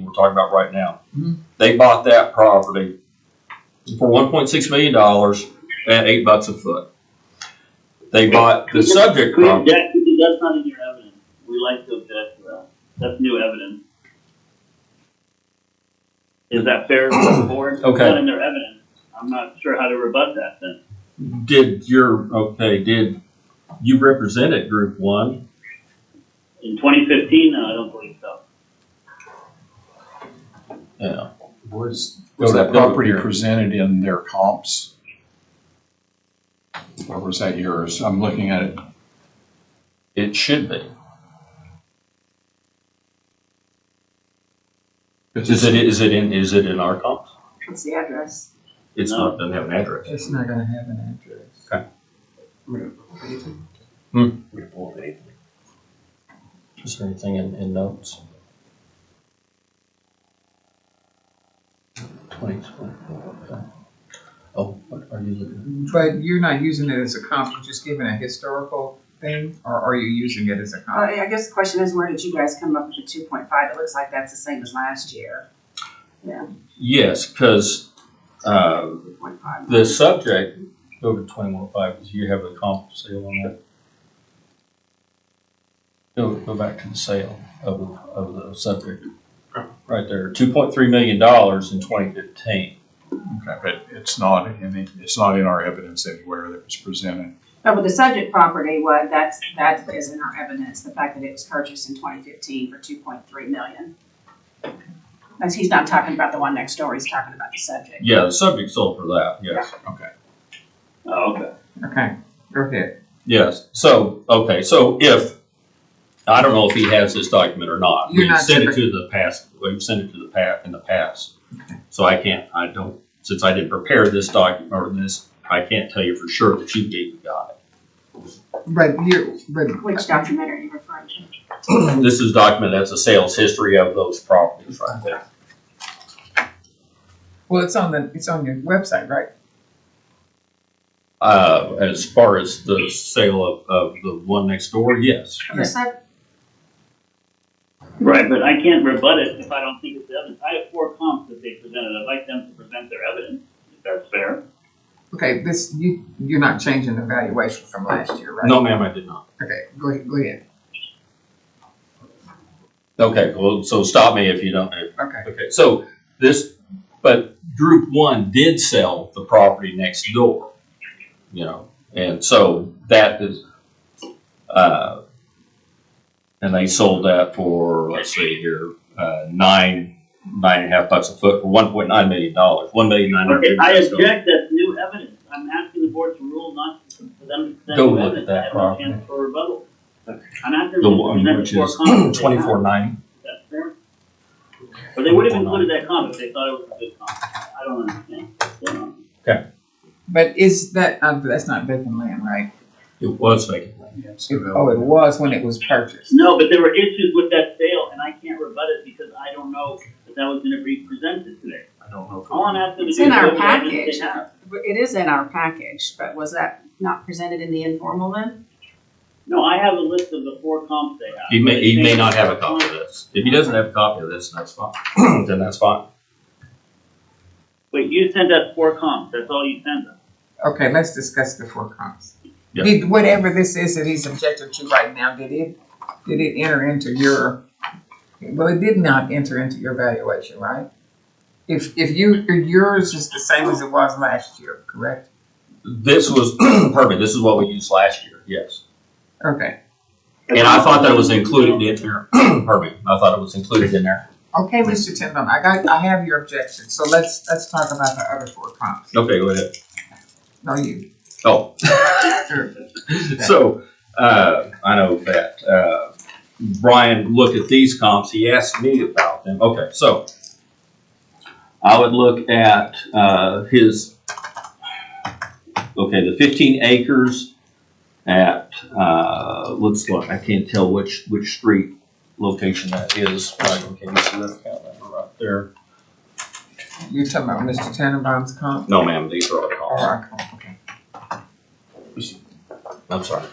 we're talking about right now. Mhm. They bought that property for one point six million dollars at eight bucks a foot. They bought the subject We property. object, because that's not in your evidence. We like to object to that. That's new evidence. Is that fair to the board? It's Okay. Not in their evidence. I'm not sure how to rebut that then. Did your, okay, did you represent it, group one? In twenty fifteen, no, I don't believe so. Yeah. Was, Go was to- go that to property here. presented in their comps? Or was that yours? I'm looking at it. It should be. Is it, is it in, is it in our comps? What's the address? It's No. not, doesn't have an address. It's not gonna have an address. Is there anything in, in notes? Twenty twenty-four, okay. Oh, what are you looking But you're not using it as a comp, you're just giving a historical thing, or are you using it as a Uh, comp? I guess the question is, where did you guys come up with the two point five? It looks like that's the same as last year, at? Yes, cause, uh, two point five. the subject, go to twenty-one oh five, do you have a comp sale on that? Go, go back to the sale of, the- of the subject. Right there, two point three million dollars in twenty fifteen. Okay, But it's not in the, it's not in our evidence anywhere that was presented. No, but the subject property, what, that's, that is in our evidence, the fact that it was purchased in twenty fifteen for two point three million. As he's not talking about the one next door, he's talking about the subject. Yeah, the subject sold for that, yes. Oh, okay. Okay, go ahead. Yes, so, okay, so if, I don't know if he has this document or not. You're We've not sent it sure. to the past, we've sent it to the pa, in the past. So I can't, I don't, since I didn't prepare this document or this, I can't tell you for sure that you gave the guy. But here, but. Which document are you referring to? This is document, that's a sales history of those properties right there. Well, it's on the, it's on your website, right? Uh, as far as the sale of, of the one next door, yes. The sub, Right, but I can't rebut it if I don't think it's evidence. I have four comps that they presented. I'd like them to present their evidence, if that's fair. Okay, this, you, you're not changing the valuation from last year, right? No, ma'am, I did not. Okay, go ahead, go ahead, Okay, well, so stop me if you don't, if okay. Okay, so this, but group one did sell the property next door, you know, and so that is, uh, and they sold that for, let's see here, uh, nine, nine and a half bucks a foot for one point nine million dollars, one million nine Okay, hundred. I object, that's new evidence. I'm asking the board to rule not to, for them to present Go new look at evidence. that I have no property. chance for rebuttal. I'm asking The them to one present which four is comps that they have. twenty-four ninety. That's fair. But they would have included that comment if they thought it was a good comment. I don't understand. what's going on. But is that, uh, that's not vacant land, right? It was vacant. Oh, it was when it was purchased. No, but there were issues with that sale, and I can't rebut it because I don't know that that was gonna be presented today. I don't know. All I'm asking to It's do is. in our look at the evidence package. they have. it is in our package, but was that not presented in the informal then? No, I have a list of the four comps they have. He may, he may not have a comment. copy of this. If he doesn't have a copy of this, that's fine, then that's fine. Wait, you sent us four comps, that's all you sent us. Okay, let's discuss the four comps. Yeah. Did, whatever this is that he's objected to right now, did it, did it enter into your, well, it did not enter into your valuation, right? If, if you, if yours is the same as it was last year, correct? This was, perfect, this is what we used last year, yes. Okay, And I thought that was included in there, pardon me, I thought it was included in there. okay, Mr. Tindall, I got, I have your objection, so let's, let's talk about the other four comps. Okay, go ahead. No, you, Oh, sure. so, uh, I know that, uh, Brian looked at these comps, he asked me about them, okay, so. I would look at, uh, his, okay, the fifteen acres at, uh, looks like, I can't tell which, which street location that is. Right, okay, you see that account number right there? You're talking about Mr. Tannenbaum's comp? No, ma'am, these are all comps. Or our comp, okay. I'm sorry.